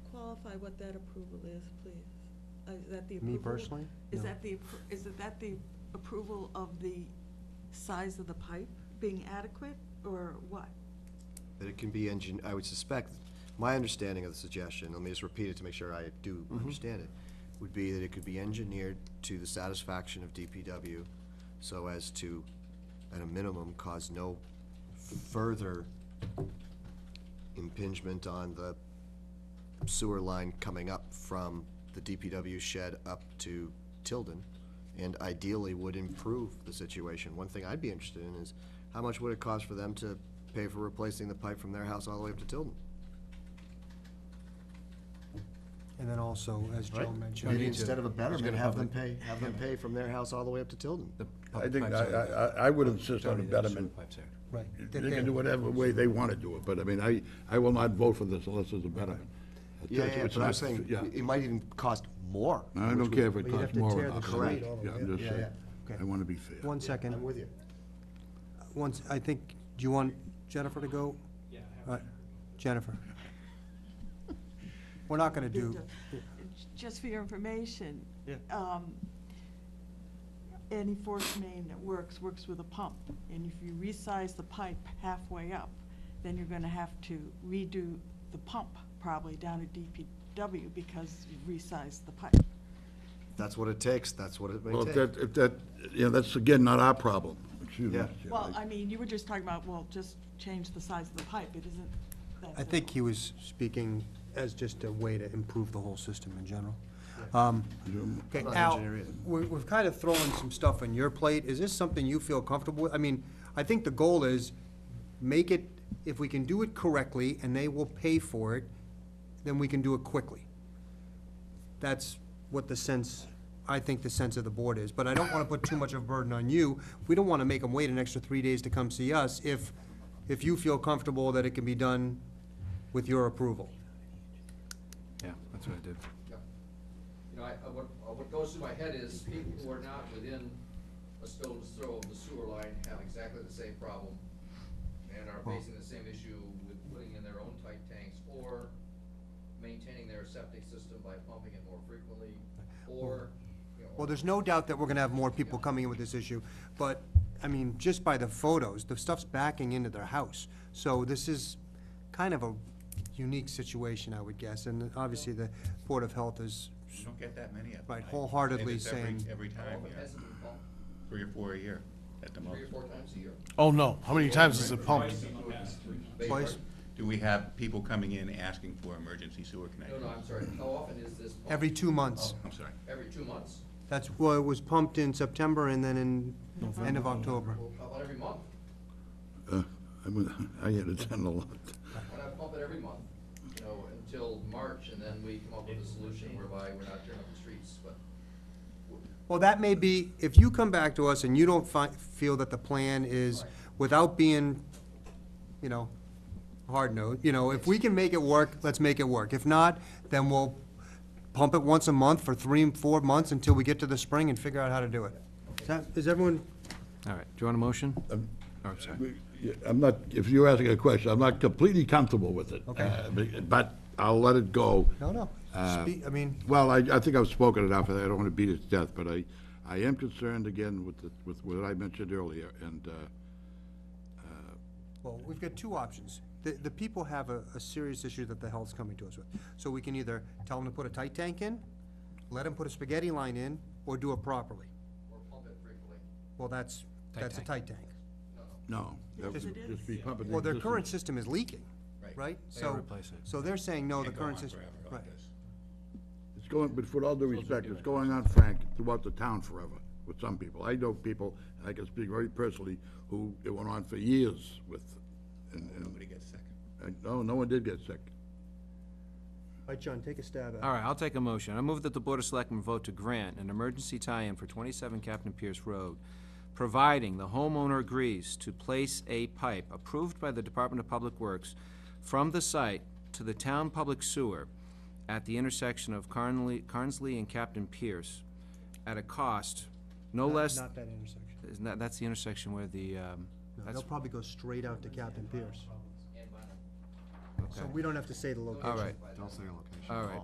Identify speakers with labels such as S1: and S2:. S1: clarify what that approval is, please? Uh, Is that the approval?
S2: Me personally?
S1: Is
S2: No.
S1: that the, appro- is it that the approval of the size of the pipe being adequate, or what?
S3: That it can be engine, I would suspect, my understanding of the suggestion, let me just repeat it to make sure I do understand it, would be that it could be engineered to the satisfaction of DPW so as to, at a minimum, cause no further impingement on the sewer line coming up from the DPW shed up to Tilden, and ideally would improve the situation. One thing I'd be interested in is, how much would it cost for them to pay for replacing the pipe from their house all the way up to Tilden?
S2: And then also, as Joe
S3: Right.
S2: mentioned.
S3: Maybe instead of a betterment,
S4: gonna
S3: have them pay,
S4: public-
S3: have them pay from their house all the way up to Tilden.
S4: I
S5: Public
S4: think, I,
S5: pipes are-
S4: I, I- I would insist on a
S5: Tony, there are sewer
S4: betterment.
S5: pipes there.
S2: Right. that
S4: They
S2: they-
S4: can do whatever way they want to do it, but I mean, I, I will not vote for this unless there's a betterment.
S3: Yeah,
S4: It's-
S3: yeah,
S4: it's
S3: but I'm
S4: not-
S3: saying,
S4: yeah.
S3: it might even cost more.
S4: I don't care if it
S2: But you'd have
S4: costs
S2: to
S4: more
S2: tear
S4: or
S2: the
S4: not.
S3: street
S2: all the
S4: Yeah,
S2: way
S4: I'm
S2: up.
S4: just
S3: Yeah,
S4: saying,
S2: yeah.
S4: I want to be fair.
S2: One second. Uh,
S3: I'm with you.
S2: Once, I think, do you want Jennifer to go? Yeah. Jennifer. We're not gonna do,
S1: Just for your information.
S2: Yeah.
S1: um, Any force main that works, works with a pump. And if you resize the pipe halfway up, then you're gonna have to redo the pump probably down at DPW because you resized the pipe.
S3: That's what it takes, that's what it may
S4: Well, if
S3: take.
S4: that, if that, you know, that's again, not our problem. Excuse me.
S3: Yeah.
S4: Mr. Chair.
S1: Well, I mean, you were just talking about, well, just change the size of the pipe, it isn't that.
S2: I think he was speaking as just a way to improve the whole system in general. Um,
S4: You-
S2: Okay,
S3: not an
S2: Al,
S3: engineer either.
S2: we- we've kind of thrown some stuff on your plate. Is this something you feel comfortable with? I mean, I think the goal is make it, if we can do it correctly and they will pay for it, then we can do it quickly. That's what the sense, I think the sense of the board is. But I don't want to put too much of a burden on you. We don't want to make them wait an extra three days to come see us if, if you feel comfortable that it can be done with your approval.
S5: Yeah, that's what I did.
S6: Yeah. You know, I, I- what, uh, what goes through my head is people who are not within a stone's throw of the sewer line have exactly the same problem and are facing the same issue with putting in their own tight tanks or maintaining their septic system by pumping it more frequently or, you know.
S2: Well, there's no doubt that we're gonna have more people coming in with this issue, but, I mean, just by the photos, the stuff's backing into their house. So this is kind of a unique situation, I would guess, and obviously the Board of Health is,
S7: You don't get that many of them.
S2: Right,
S7: I-
S2: wholeheartedly
S7: it's every-
S2: saying-
S7: Every
S6: How
S7: time,
S6: often
S7: yeah,
S6: has it been pumped?
S7: three or four a year at the
S6: Three or
S7: most.
S6: four times a year.
S8: Oh, no. How many times is it pumped?
S2: Twice.
S7: Do we have people coming in asking for emergency sewer
S6: No,
S7: connections?
S6: no, I'm sorry. How often is this pumped?
S2: every two months.
S7: I'm sorry.
S6: Every two months?
S2: That's, well, it was pumped in September and then in, end of October.
S6: Well, how about every month?
S4: uh, I would- I had it done a lot.
S6: Why not pump it every month, you know, until March, and then we come up with a solution whereby we're not tearing up the streets, but.
S2: Well, that may be, if you come back to us and you don't fi- feel that the plan is, without being, you know, hard note, you know, if we can make it work, let's make it work. If not, then we'll pump it once a month for three and four months until we get to the spring and figure out how to do it. Is that- Is everyone,
S5: All right, do you want a motion?
S4: Um,
S5: Oh, sorry.
S4: Yeah, I'm not, if you're asking a question, I'm not completely comfortable with it.
S2: Okay.
S4: uh, but- But I'll let it go.
S2: no, no, speak, I mean,
S4: Well, I, I think I've spoken enough, and I don't want to beat it to death, but I, I am concerned again with, the- with what I mentioned earlier, and, uh,
S2: well, we've got two options. The, the people have a, a serious issue that the health's coming to us with. So we can either tell them to put a tight tank in, let them put a spaghetti line in, or do it properly.
S6: Or pump it frequently.
S2: Well, that's,
S5: Tight
S2: that's a
S5: tank.
S2: tight tank.
S4: no. that
S1: Yes,
S4: would
S1: it
S4: Just be
S1: is.
S4: pumping. the
S2: Well, their
S4: existing-
S2: current system is leaking,
S7: Right.
S2: right?
S5: They
S2: So,
S5: replace it.
S2: so they're saying, no, the
S7: Can't go on
S2: current system,
S7: forever like
S2: right.
S7: this.
S4: It's going, but with all due respect, it's going on, Frank, throughout the town forever with some people. I know people, and I can speak very personally, who it went on for years with, and,
S7: Nobody
S4: and,
S7: gets second.
S4: and- no, no one did get sick.
S2: All right, John, take a stab at
S5: All
S2: it.
S5: right, I'll take a motion. I move that the Board of Selectmen vote to grant an emergency tie-in for 27 Captain Pierce Road, providing the homeowner agrees to place a pipe approved by the Department of Public Works from the site to the town public sewer at the intersection of Carnley, Carnsley and Captain Pierce at a cost no less,
S2: Not that intersection.
S5: isn't that, that's the intersection where the, um,
S2: No,
S5: that's,
S2: They'll probably go straight out to Captain Pierce.
S6: And vinyl.
S2: So
S5: okay.
S2: we don't have to say the location.
S5: All right,
S3: Don't say your location.
S5: all right.